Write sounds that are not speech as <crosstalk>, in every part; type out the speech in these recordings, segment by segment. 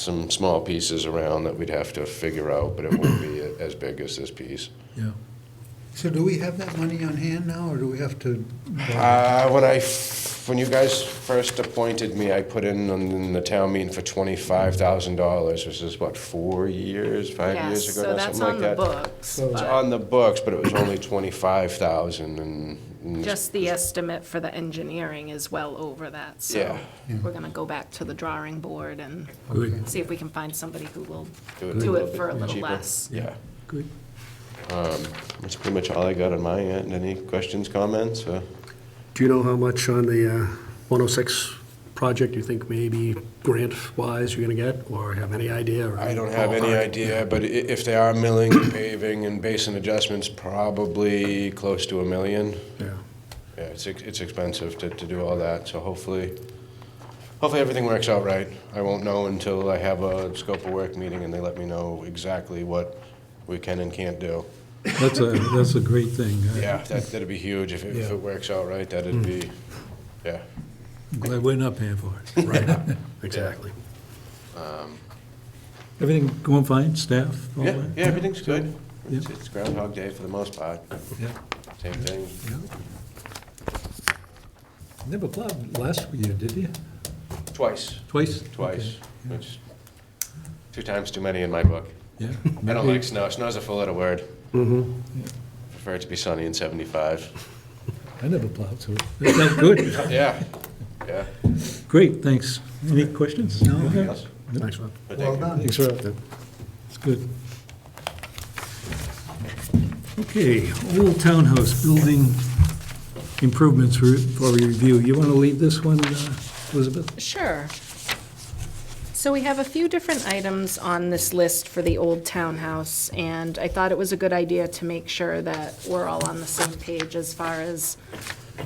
some small pieces around that we'd have to figure out, but it won't be a- as big as this piece. Yeah. So do we have that money on hand now, or do we have to? Uh, when I, f- when you guys first appointed me, I put in on in the town meeting for twenty-five thousand dollars, which is what, four years, five years Yes, ago, so now, that's something like on the that? books, It's but on the books, but it was only twenty-five thousand and. and just the estimate for the engineering is well over that, so Yeah. we're gonna go back to the drawing board and Good, see if we can find somebody who will Do do little it for a bit little cheaper. less. Yeah, Um, good. that's pretty much all I got on my end. Any questions, comments? Uh, Do you know how much on the uh, 106 project you think maybe grant-wise you're going to get, or have any idea? or I don't have any ballpark? idea, but i- if they are milling, <coughs> and paving and basin adjustments, probably close to a million. Yeah. Yeah, it's, ex- it's expensive to, to do all that, so hopefully, hopefully everything works out right. I won't know until I have a scope of work meeting and they let me know exactly what we can and can't do. That's a, that's a great thing. I- Yeah, that, that'd be huge if, it- if Yeah. it works out right, that'd be, yeah. I'm Glad we're not paying for it. Right, exactly. Everything going fine, staff? all Yeah, that? yeah, everything's good. Yeah. It's it's Groundhog Day for the most part, Yeah, same thing. yeah. Never plowed last year, did you? Twice, Twice? twice, Okay, which, two times too many in my book. I Yeah. don't Maybe- Mm-hmm. like snow, snow's a four-letter word. Prefer it to be sunny and seventy-five. I never plowed, so that sounds good. Yeah, yeah. Great, thanks. Any questions? No. Yes. Thanks, Rob. But Well thank you. done. Thanks, Rob. It's good. Okay, Old Townhouse Building Improvements for for Review. You want to leave this one, uh, Elizabeth? Sure. So we have a few different items on this list for the old townhouse, and I thought it was a good idea to make sure that we're all on the same page as far as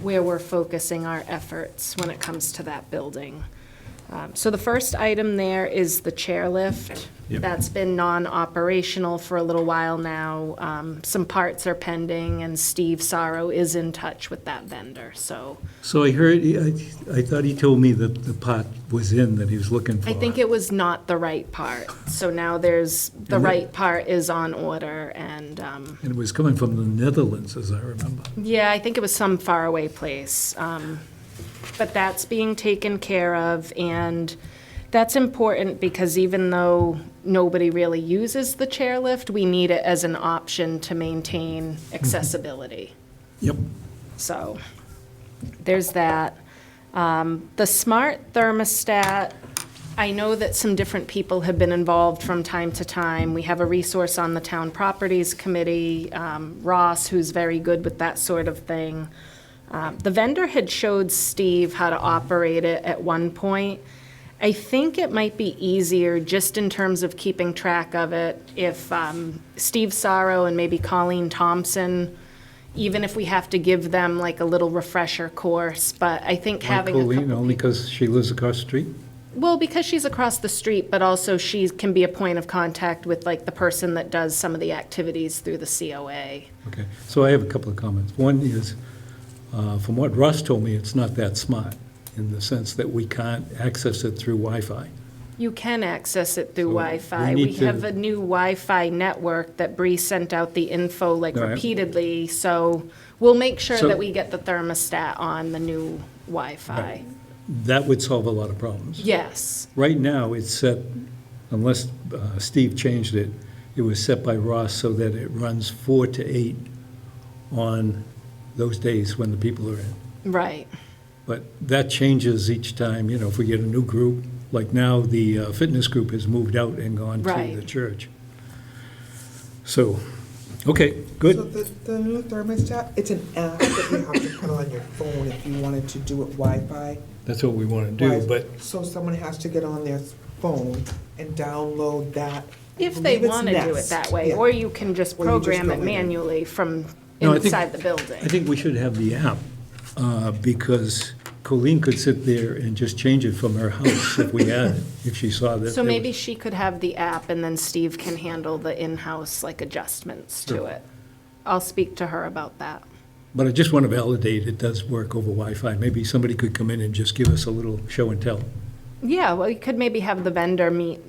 where we're focusing our efforts when it comes to that building. Um, So the first item there is the chairlift. Yep. That's been non-operational for a little while now. Um, Some parts are pending, and Steve Sorrow is in touch with that vendor, so So I heard, I I thought he told me that the pot was in that he was looking for. I think it was not the right part. So now there's, the And the- right part is on order and, um, And it was coming from the Netherlands, as I remember. yeah, I think it was some faraway place. Um, But that's being taken care of and that's important because even though nobody really uses the chairlift, we need it as an option to maintain accessibility. Mm-hmm. Yep. So there's that. Um, The smart thermostat, I know that some different people have been involved from time to time. We have a resource on the Town Properties Committee, um, Ross, who's very good with that sort of thing. Um, The vendor had showed Steve how to operate it at one point. I think it might be easier, just in terms of keeping track of it, if um, Steve Sorrow and maybe Colleen Thompson, even if we have to give them like a little refresher course, but I think having a couple Colleen, only because she lives across the street? well, because she's across the street, but also she can be a point of contact with like the person that does some of the activities through the COA. Okay, so I have a couple of comments. One is, uh, from what Russ told me, it's not that smart, in the sense that we can't access it through Wi-Fi. You can access it through So we Wi-Fi. need We have to- a new Wi-Fi network that Bree sent out the info like All right. repeatedly, so we'll make sure So- that we get the thermostat on the new Wi-Fi. That would solve a lot of problems. Yes, Right now, it's set, unless uh, Steve changed it, it was set by Ross so that it runs four to eight on those days when the people are in. right. But that changes each time, you know, if we get a new group, like now, the uh, fitness group has moved out and gone to Right. the church. So, okay, good. So the, the new thermostat, it's an app that you have to put on your phone if you wanted to do it Wi-Fi. That's what we want to do, Wi- but So someone has to get on their phone and download that. If they want to do it that way, or you can just Or you just program go it in. manually from No, I think- inside the building. I think we should have the app, uh, because Colleen could sit there and just change it from her house if we had, it, if she saw that. So there maybe was- she could have the app, and then Steve can handle the in-house, like, adjustments to Sure. it. I'll speak to her about that. But I just want to validate it does work over Wi-Fi. Maybe somebody could come in and just give us a little show and tell. Yeah, well, you could maybe have the vendor meet